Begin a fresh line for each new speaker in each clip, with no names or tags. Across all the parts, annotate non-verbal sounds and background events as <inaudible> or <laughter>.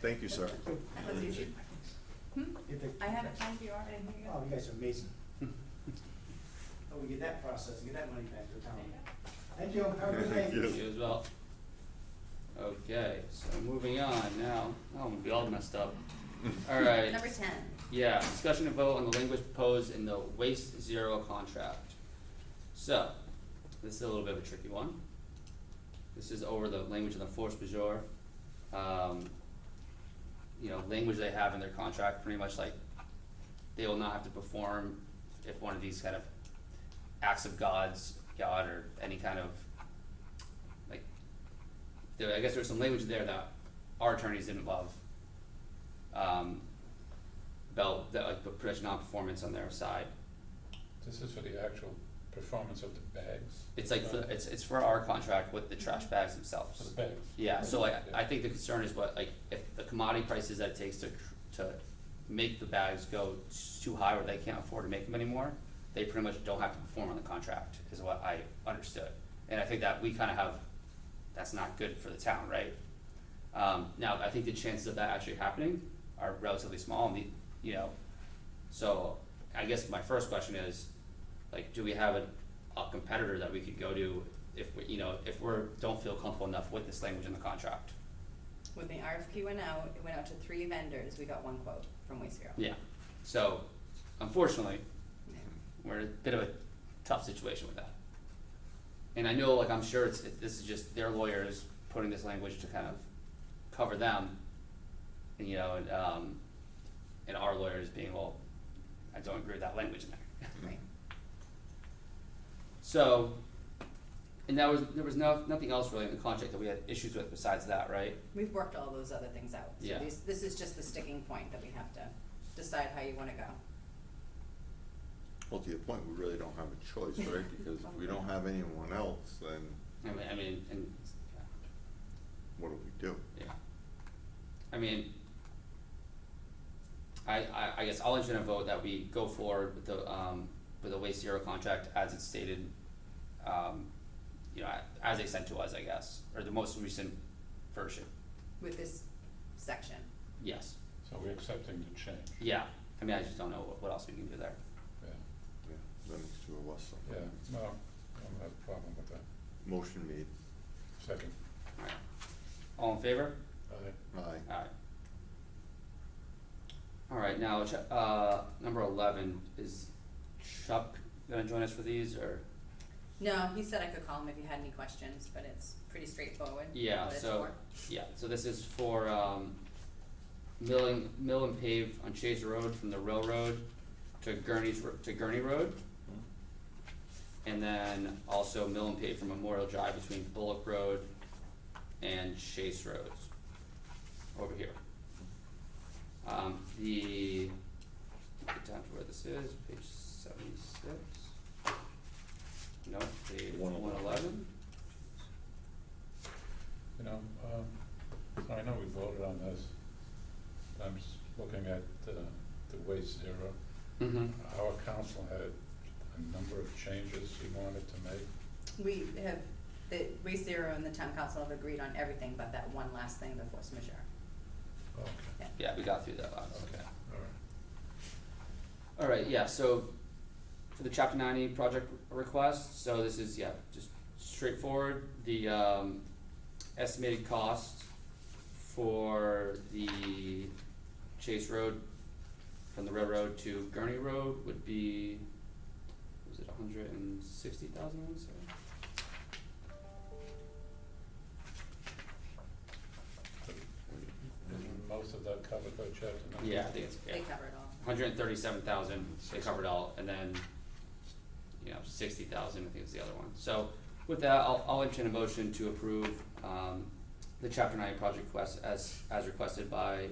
Thank you, sir.
Hmm?
Get the-
I haven't found you already. Hang
Oh,
on.
you guys are <laughs> amazing. Oh, we get that process, and get that money back to the town. Thank you, have a good day.
Thank you.
You as well. Okay, so moving on now, oh, we all messed up. Alright,
Number ten.
yeah, discussion and vote on the language proposed in the waste zero contract. So, this is a little bit of a tricky one. This is over the language of the force majeure. Um, you know, language they have in their contract, pretty much like they will not have to perform if one of these kind of acts of God's, God or any kind of like there, I guess there's some language there that our attorneys didn't love. Um, about that like put pretty non-performance on their side.
This is for the actual performance of the bags,
It's like for, it's it's for our contract with the trash bags themselves.
for the bags.
Yeah, so like, I think the concern is what, like, if the commodity prices that it takes to, tr- to make the bags go s- too high where they can't afford to make them anymore, they pretty much don't have to perform on the contract, is what I understood. And I think that we kinda have, that's not good for the town, right? Um, now, I think the chances of that actually happening are relatively small, and the, you know, so I guess my first question is, like, do we have a, a competitor that we could go to if we, you know, if we're, don't feel comfortable enough with this language in the contract?
When the RFP went out, it went out to three vendors, we got one quote from Waste Zero.
Yeah, so unfortunately, we're in a bit of a tough situation with that. And I know, like, I'm sure it's, it, this is just their lawyers putting this language to kind of cover them, and, you know, and, um, and our lawyers being, well, I don't agree with that language in there. <laughs>
Right.
So, and that was, there was no, nothing else really in the contract that we had issues with besides that, right?
We've worked all those other things out. So
Yeah.
these- This is just the sticking point that we have to decide how you wanna go.
Well, to your point, we really don't have a choice, right? Because if we don't have anyone else, then
I mean, I mean, and,
what do we do?
yeah. I mean, I, I, I guess I'll entertain a vote that we go forward with the, um, with the waste zero contract as it's stated, um, you know, as they sent to us, I guess, or the most recent version,
with this section.
yes,
So we're accepting the change,
yeah. I mean, I just don't know what- what else we can do there.
yeah,
Yeah, Then it's two of us. so-
yeah, no, I don't have a problem with that.
Motion made.
Second,
Alright, all in favor?
aye,
Aye.
Alright. Alright, now, ch- uh, number eleven, is Chuck gonna join us for these, or?
No, he said I could call him if you had any questions, but it's pretty straightforward.
Yeah,
what it's
so,
for.
yeah, so this is for, um, milling, mill and pave on Chase Road from the railroad to Gurney's, Ro- to Gurney Road. And then also mill and pave from Memorial Drive between Bullock Road and Chase Roads, over here. Um, the, get down to where this is, page seventy-six. No, page one
One
eleven.
eleven.
you know, um, so I know we voted on this. I'm just looking at, uh, the waste zero.
Mm-hmm.
Our council had a number of changes he wanted to make.
We have, the Waste Zero and the town council have agreed on everything but that one last thing, the force majeure.
Okay,
Yeah, we got through that last.
okay, all right.
All right, yeah, so for the chapter ninety project request, so this is, yeah, just straightforward, the um estimated cost for the Chase Road from the railroad to Gurney Road would be, was it hundred and sixty thousand, sorry?
Is most of that covered by chapter ninety?
Yeah, I think it's, yeah.
They cover it all.
hundred and thirty-seven thousand, they covered all, and then, you know, sixty thousand, I think is the other one. So with that, I'll, I'll entertain a motion to approve, um, the chapter nine project request as, as requested by,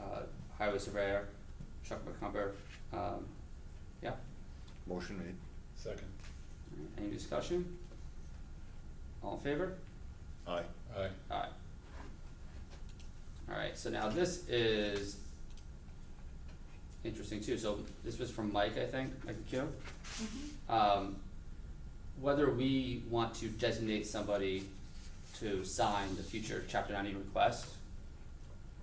uh, Highway Surveyor Chuck McCumber. Um, yeah,
Motion made.
Second,
any discussion? All in favor?
Aye.
aye,
Alright. Alright, so now this is interesting too, so this was from Mike, I think, Mike Kyo. Um, whether we want to designate somebody to sign the future chapter ninety request,